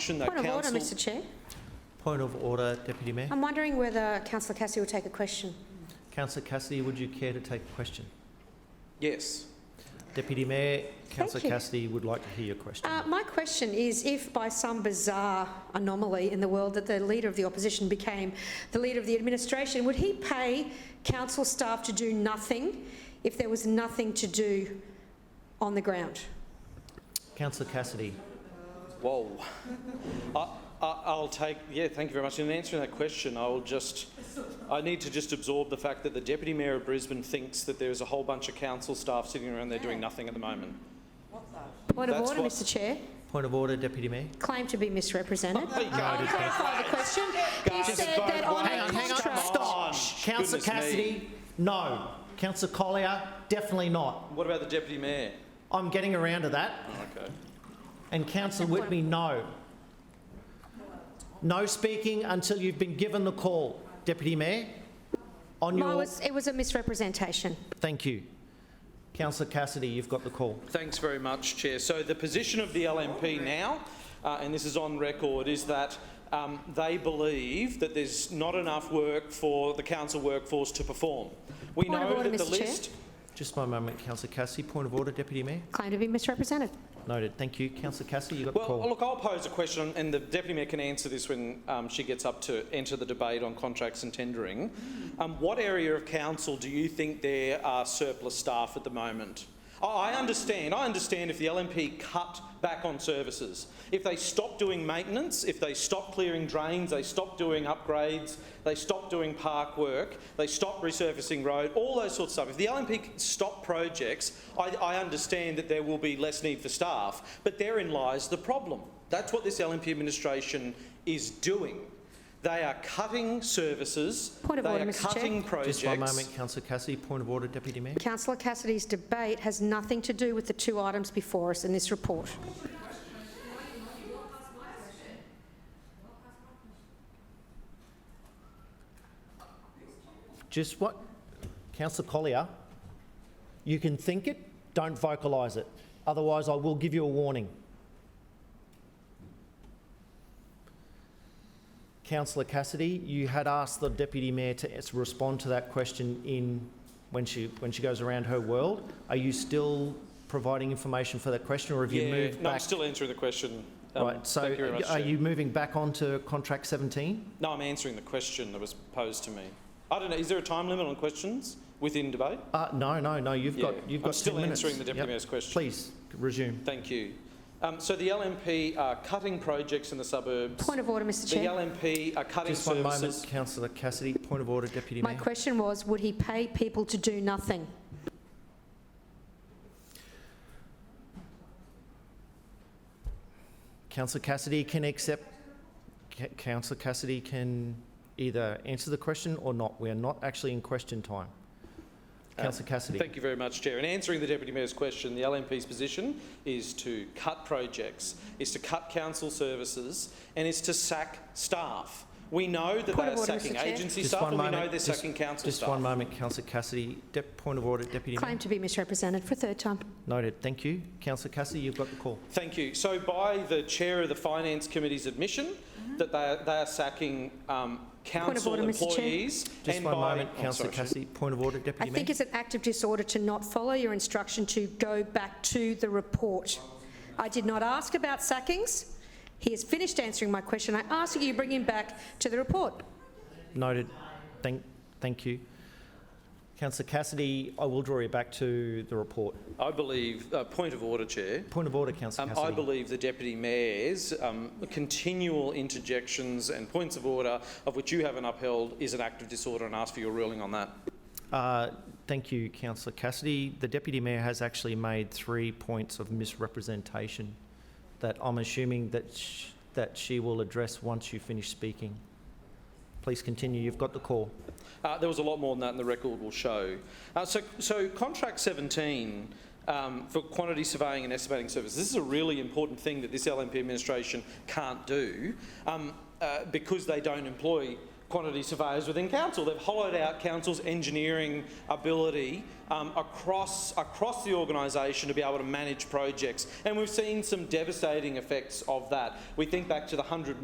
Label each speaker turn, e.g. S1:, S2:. S1: motion that
S2: Point of
S1: council...
S2: order, Mr Chair.
S3: Point of order, Deputy Mayor.
S2: I'm wondering whether councillor Cassidy will take a question.
S3: Councillor Cassidy, would you care to take a question?
S1: Yes.
S3: Deputy Mayor, Councillor
S2: you.
S3: Cassidy would like to hear your question.
S2: Uh, My question is if by some bizarre anomaly in the world that the leader of the opposition became the leader of the administration, would he pay council staff to do nothing if there was nothing to do on the ground?
S3: Councillor Cassidy.
S1: Whoa. I, I, I'll take, yeah, thank you very much. In answering that question, I will just, I need to just absorb the fact that the Deputy Mayor of Brisbane thinks that there's a whole bunch of council staff sitting around there doing nothing at the moment.
S2: Point of
S1: That's
S2: order,
S1: what-
S2: Mr Chair.
S3: Point of order, Deputy Mayor.
S2: Claim to be misrepresented.
S1: There you go.
S2: I'll clarify the question. You
S1: Just
S2: said
S1: vote
S2: that on
S1: one.
S3: Hang
S2: a
S3: on, hang on.
S2: contract.
S3: Stop.
S1: Goodness
S3: Councillor
S1: me.
S3: Cassidy, no. Councillor Collier, definitely not.
S1: What about the Deputy Mayor?
S3: I'm getting around to that.
S1: Oh, okay.
S3: And Councillor Whitby, no. No speaking until you've been given the call, Deputy Mayor. On
S2: Mine
S3: your,
S2: was- It was a misrepresentation.
S3: thank you. Councillor Cassidy, you've got the call.
S1: Thanks very much, Chair. So the position of the LNP now, uh, and this is on record, is that um, they believe that there's not enough work for the council workforce to perform. We
S2: Point of
S1: know
S2: order,
S1: that the
S2: Mr. Chair.
S1: list.
S3: Just one moment, Councillor Cassidy. Point of order, Deputy Mayor.
S2: Claim to be misrepresented.
S3: Noted. Thank you. Councillor Cassidy, you got the
S1: Well,
S3: call.
S1: look, I'll pose a question, and the Deputy Mayor can answer this when um, she gets up to enter the debate on contracts and tendering. Um, what area of council do you think there are surplus staff at the moment? Oh, I understand. I understand if the LNP cut back on services, if they stop doing maintenance, if they stop clearing drains, they stop doing upgrades, they stop doing park work, they stop resurfacing road, all those sorts of stuff. If the LNP stop projects, I, I understand that there will be less need for staff, but therein lies the problem. That's what this LNP administration is doing. They are cutting services,
S2: Point of
S1: they
S2: order,
S1: are
S2: Mr. Chair.
S1: cutting projects.
S3: Just one moment, Councillor Cassidy. Point of order, Deputy Mayor.
S2: Councillor Cassidy's debate has nothing to do with the two items before us in this report.
S3: Just what? Councillor Collier, you can think it, don't vocalise it. Otherwise, I will give you a warning. Councillor Cassidy, you had asked the Deputy Mayor to s- respond to that question in, when she, when she goes around her world. Are you still providing information for that question or have you
S1: Yeah,
S3: moved
S1: no, I'm
S3: back?
S1: still answering the question. Um,
S3: Right, so
S1: thank you very much,
S3: are
S1: Chair.
S3: you moving back onto contract 17?
S1: No, I'm answering the question that was posed to me. I don't know, is there a time limit on questions within debate?
S3: Uh, no, no, no, you've got,
S1: Yeah,
S3: you've
S1: I'm
S3: got 10
S1: still
S3: minutes.
S1: answering the Deputy
S3: Yep.
S1: Mayor's question.
S3: Please, resume.
S1: Thank you. Um, so the LNP are cutting projects in the suburbs.
S2: Point of order, Mr
S1: the
S2: Chair.
S1: LNP are cutting
S3: Just one moment,
S1: services.
S3: councillor Cassidy, point of order, Deputy
S2: My
S3: Mayor.
S2: question was, would he pay people to do nothing?
S3: Councillor Cassidy can accept, Ca- councillor Cassidy can either answer the question or not. We are not actually in question time.
S1: Uh,
S3: Councillor Cassidy,
S1: Thank you very much, Chair. In answering the Deputy Mayor's question, the LNP's position is to cut projects, is to cut council services, and is to sack staff. We know that
S2: Point
S1: they
S2: of
S1: are
S2: order, Mr.
S1: sacking
S2: Chair.
S1: agency
S3: Just
S1: staff,
S3: one
S1: and we
S3: moment,
S1: know they're
S3: just-
S1: sacking council
S3: just
S1: staff.
S3: one moment, councillor Cassidy, Dep- point of order, Deputy Mayor.
S2: Claim to be misrepresented for a third time.
S3: Noted, thank you. Councillor Cassidy, you've got the call.
S1: Thank you. So by the chair of the finance committee's admission that they are, they are sacking um, council
S2: Mm-hmm. order, Mr. Chair.
S1: employees,
S3: Just
S1: and
S3: one
S1: by
S3: moment,
S1: Oh,
S3: councillor
S1: sorry, Chair.
S3: Cassidy, point of order,
S2: I
S3: Deputy Mayor.
S2: think it's an act of disorder to not follow your instruction to go back to the report. I did not ask about sackings. He has finished answering my question. I ask that you bring him back to the report.
S3: Noted. Thank, thank you. Councillor Cassidy, I will draw you back to the report.
S1: I believe uh, point of order, chair.
S3: Point of order, councillor
S1: Um, I
S3: Cassidy.
S1: believe the deputy mayor's um, continual interjections and points of order, of which you haven't upheld, is an act of disorder, and ask for your ruling on that.
S3: Uh, Thank you, councillor Cassidy. The deputy mayor has actually made three points of misrepresentation that I'm assuming that, sh- that she will address once you finish speaking. Please continue, you've got the call.
S1: Uh, there was a lot more than that, and the record will show. Uh, so, so contract 17 um, for quantity surveying and estimating services. This is a really important thing that this LNP administration can't do um, uh, because they don't employ quantity surveyors within council. They've hollowed out council's engineering ability um, across, across the organisation to be able to manage projects. And we've seen some devastating effects of that. We think back to the 100